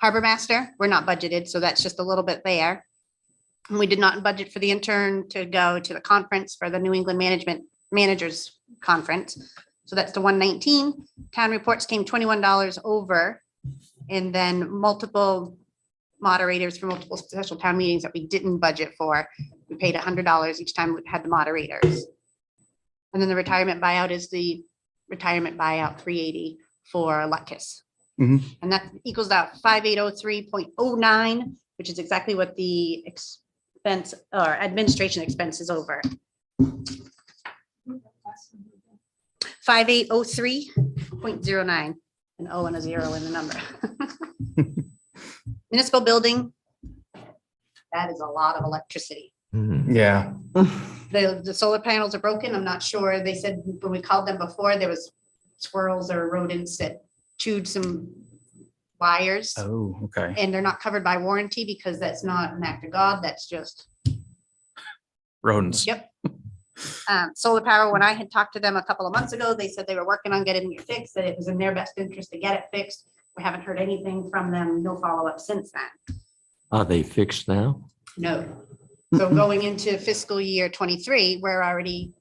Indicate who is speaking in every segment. Speaker 1: Harbor Master, we're not budgeted, so that's just a little bit there. And We did not budget for the intern to go to the conference for the New England Management Managers Conference. So that's the one nineteen. Town reports came twenty-one dollars over. And then multiple moderators for multiple special town meetings that we didn't budget for. We paid hundred dollars each time we had the moderators. And then the retirement buyout is the retirement buyout three eighty for Luckus.
Speaker 2: Mhm.
Speaker 1: And that equals out five eight oh three point oh nine, which is exactly what the expense or administration expense is over. Five eight oh three point zero nine, an O and a zero in the number. Municipal building. That is a lot of electricity.
Speaker 3: Mm-hmm.
Speaker 2: Yeah.
Speaker 1: The, the solar panels are broken. I'm not sure. They said when we called them before, there was squirrels or rodents that chewed some wires.
Speaker 2: Oh, okay.
Speaker 1: And they're not covered by warranty because that's not an act of God. That's just
Speaker 2: Rodents.
Speaker 1: Yep. Um, solar power, when I had talked to them a couple of months ago, they said they were working on getting it fixed, that it was in their best interest to get it fixed. We haven't heard anything from them, no follow-up since then.
Speaker 4: Are they fixed now?
Speaker 1: No. So going into fiscal year twenty-three, we're already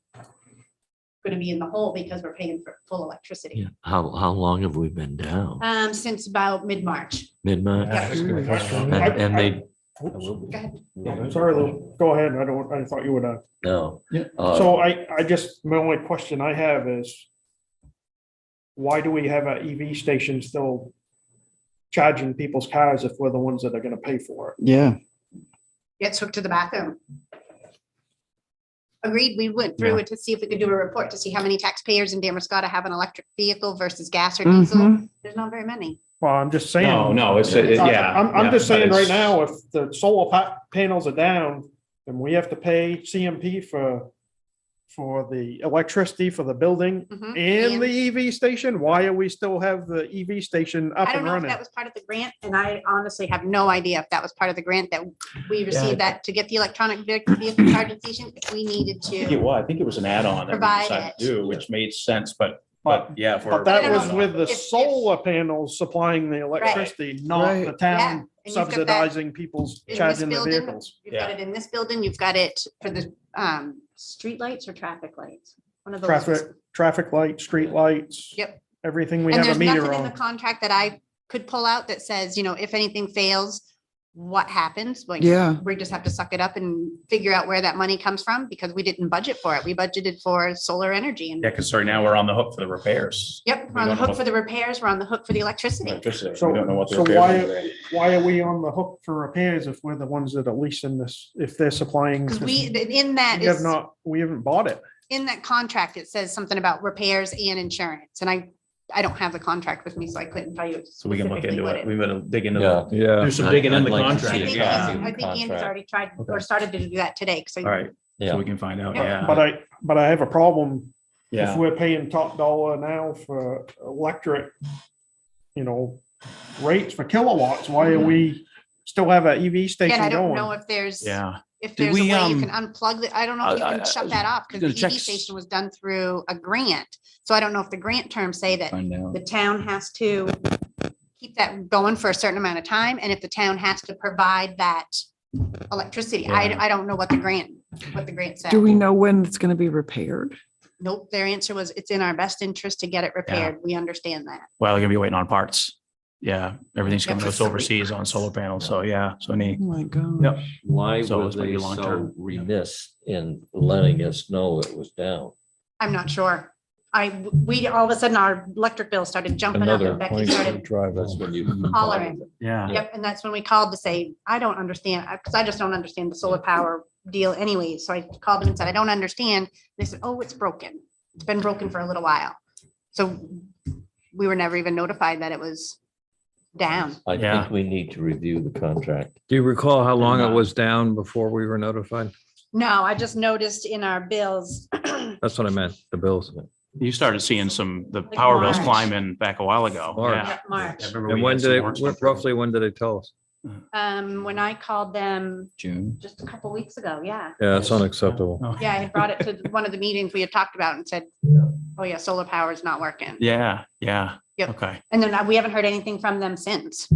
Speaker 1: gonna be in the hole because we're paying for full electricity.
Speaker 4: How, how long have we been down?
Speaker 1: Um, since about mid-March.
Speaker 4: Mid-March?
Speaker 1: Yeah.
Speaker 4: And
Speaker 5: I-
Speaker 4: and they,
Speaker 5: Oops.
Speaker 1: Go ahead.
Speaker 5: Yeah, Sorry, Lou, go ahead. I don't, I thought you were done.
Speaker 4: no.
Speaker 2: Yeah.
Speaker 4: Uh,
Speaker 5: So I, I just, my only question I have is why do we have an EV station still charging people's cars if we're the ones that are gonna pay for it?
Speaker 2: Yeah.
Speaker 1: Gets hooked to the bathroom. Agreed, we went through it to see if we could do a report to see how many taxpayers in Damascotta have an electric vehicle versus gas or diesel.
Speaker 5: Mm-hmm.
Speaker 1: There's not very many.
Speaker 5: Well, I'm just saying.
Speaker 3: No, no, it's, it- yeah.
Speaker 5: I'm, I'm
Speaker 3: yeah,
Speaker 5: just saying
Speaker 3: but
Speaker 5: right
Speaker 3: it's-
Speaker 5: now, if the solar pa- panels are down, then we have to pay CMP for, for the electricity for the building
Speaker 1: Mhm.
Speaker 5: and
Speaker 1: And-
Speaker 5: the EV station. Why are we still have the EV station up
Speaker 1: I don't
Speaker 5: and
Speaker 1: know if
Speaker 5: running?
Speaker 1: that was part of the grant, and I honestly have no idea if that was part of the grant that we received that to get the electronic ve- vehicle charging station, if we needed
Speaker 3: I think it
Speaker 1: to.
Speaker 3: was, I think it was an add-on that we
Speaker 1: Provide
Speaker 3: decided
Speaker 1: it.
Speaker 3: to do, which made sense, but,
Speaker 5: But
Speaker 3: but yeah. if we're-
Speaker 5: But that
Speaker 1: No, no,
Speaker 5: was
Speaker 1: no.
Speaker 5: with the
Speaker 1: If- if-
Speaker 5: solar panels supplying the electricity, not
Speaker 2: Right.
Speaker 5: the
Speaker 1: Yeah,
Speaker 5: town
Speaker 1: and you've got that
Speaker 5: subsidizing people's
Speaker 1: in this
Speaker 5: charging the
Speaker 1: building.
Speaker 5: vehicles.
Speaker 1: You've got it in this building, you've got it for the um streetlights or traffic lights, one of those.
Speaker 5: Traffic, traffic lights, street lights.
Speaker 1: Yep.
Speaker 5: Everything we
Speaker 1: And
Speaker 5: have
Speaker 1: there's
Speaker 5: a meter
Speaker 1: nothing in the
Speaker 5: on.
Speaker 1: contract that I could pull out that says, you know, if anything fails, what happens? Like,
Speaker 2: Yeah.
Speaker 1: we just have to suck it up and figure out where that money comes from because we didn't budget for it. We budgeted for solar energy and,
Speaker 3: Yeah, because sorry, now we're on the hook for the repairs.
Speaker 1: yep,
Speaker 3: We
Speaker 1: we're on the
Speaker 3: don't know
Speaker 1: hook
Speaker 3: what-
Speaker 1: for the repairs, we're on the hook for the electricity.
Speaker 3: Electricity,
Speaker 5: So-
Speaker 3: We don't know what the
Speaker 5: so
Speaker 3: repairs are. today.
Speaker 5: Why are we on the hook for repairs if we're the ones that are leasing this, if they're supplying?
Speaker 1: Because
Speaker 5: this-
Speaker 1: we, in that
Speaker 5: We have
Speaker 1: is,
Speaker 5: not, we haven't bought it.
Speaker 1: in that contract, it says something about repairs and insurance, and I, I don't have the contract with me, so I couldn't tell you.
Speaker 3: So we can look
Speaker 1: specifically
Speaker 3: into
Speaker 1: what
Speaker 3: it. We better dig into
Speaker 4: Yeah.
Speaker 3: the
Speaker 2: Yeah.
Speaker 3: Do some digging in
Speaker 4: I'd
Speaker 3: the
Speaker 4: like to
Speaker 1: I
Speaker 3: contract.
Speaker 1: think, he's-
Speaker 3: Yeah.
Speaker 1: I think Ian's already tried or
Speaker 3: Okay.
Speaker 1: started to do that today, so.
Speaker 3: All right, so
Speaker 4: Yeah.
Speaker 3: we can find out,
Speaker 5: But
Speaker 3: yeah.
Speaker 5: but I, but I have a problem if
Speaker 3: Yeah,
Speaker 5: we're paying top dollar now for electric, you know, rates for kilowatts, why are we still have an EV
Speaker 1: And I
Speaker 5: station
Speaker 1: don't know
Speaker 5: going?
Speaker 1: if there's,
Speaker 3: yeah.
Speaker 1: if
Speaker 2: Did
Speaker 1: there's a
Speaker 2: we,
Speaker 1: way you
Speaker 2: um,
Speaker 1: can unplug the, I don't know if you
Speaker 2: I- I-
Speaker 1: can shut
Speaker 2: I
Speaker 1: that off
Speaker 2: gonna
Speaker 1: because the
Speaker 2: check
Speaker 1: EV
Speaker 2: s-
Speaker 1: station was done through a grant. So I don't know if the grant terms say that
Speaker 2: Find out.
Speaker 1: the town has to keep that going for a certain amount of time, and if the town has to provide that electricity, I, I don't know what the grant, what the grant said.
Speaker 6: Do we know when it's going to be repaired?
Speaker 1: Nope, their answer was, it's in our best interest to get it repaired, we understand that.
Speaker 3: Well, they're gonna be waiting on parts. Yeah, everything's
Speaker 1: Yeah,
Speaker 3: coming
Speaker 1: for
Speaker 3: to us
Speaker 1: three
Speaker 3: overseas on solar panels, so yeah, so
Speaker 6: Oh
Speaker 3: neat.
Speaker 6: my God.
Speaker 3: Yep.
Speaker 4: Why
Speaker 3: So
Speaker 4: were
Speaker 3: it's gonna be
Speaker 4: they
Speaker 3: long term.
Speaker 4: so remiss in letting us know it was down?
Speaker 1: I'm not sure. I, we, all of a sudden, our electric bill started jumping up,
Speaker 4: Another
Speaker 1: and Becky
Speaker 4: point to
Speaker 1: started,
Speaker 4: drive us when you.
Speaker 1: Hollering.
Speaker 3: Yeah.
Speaker 1: yep, and that's when we called to say, I don't understand, because I just don't understand the solar power deal anyway, so I called them and said, I don't understand. They said, oh, it's broken, it's been broken for a little while. So we were never even notified that it was down.
Speaker 4: I
Speaker 3: Yeah.
Speaker 4: think we need to review the contract.
Speaker 7: Do you recall how long
Speaker 3: not.
Speaker 7: it was down before we were notified?
Speaker 1: No, I just noticed in our bills,
Speaker 7: That's what I meant, the bills.
Speaker 3: You started seeing some, the power bills
Speaker 1: March.
Speaker 3: climbing back a while ago.
Speaker 7: March.
Speaker 3: Yeah.
Speaker 1: March,
Speaker 3: I remember
Speaker 7: And
Speaker 3: we
Speaker 7: when
Speaker 3: had some
Speaker 7: did
Speaker 3: warrants
Speaker 7: they,
Speaker 3: come through.
Speaker 7: roughly when did they tell us?
Speaker 1: um, when I called them
Speaker 2: June.
Speaker 1: just a couple weeks ago, yeah.
Speaker 7: Yeah, it's unacceptable.
Speaker 3: Oh,
Speaker 1: Yeah, I had brought it to one of the meetings we had talked about and said, oh yeah, solar power is not working. uh,
Speaker 3: Yeah, yeah.
Speaker 1: Yep.
Speaker 3: Okay,
Speaker 1: And then we haven't heard anything from them since.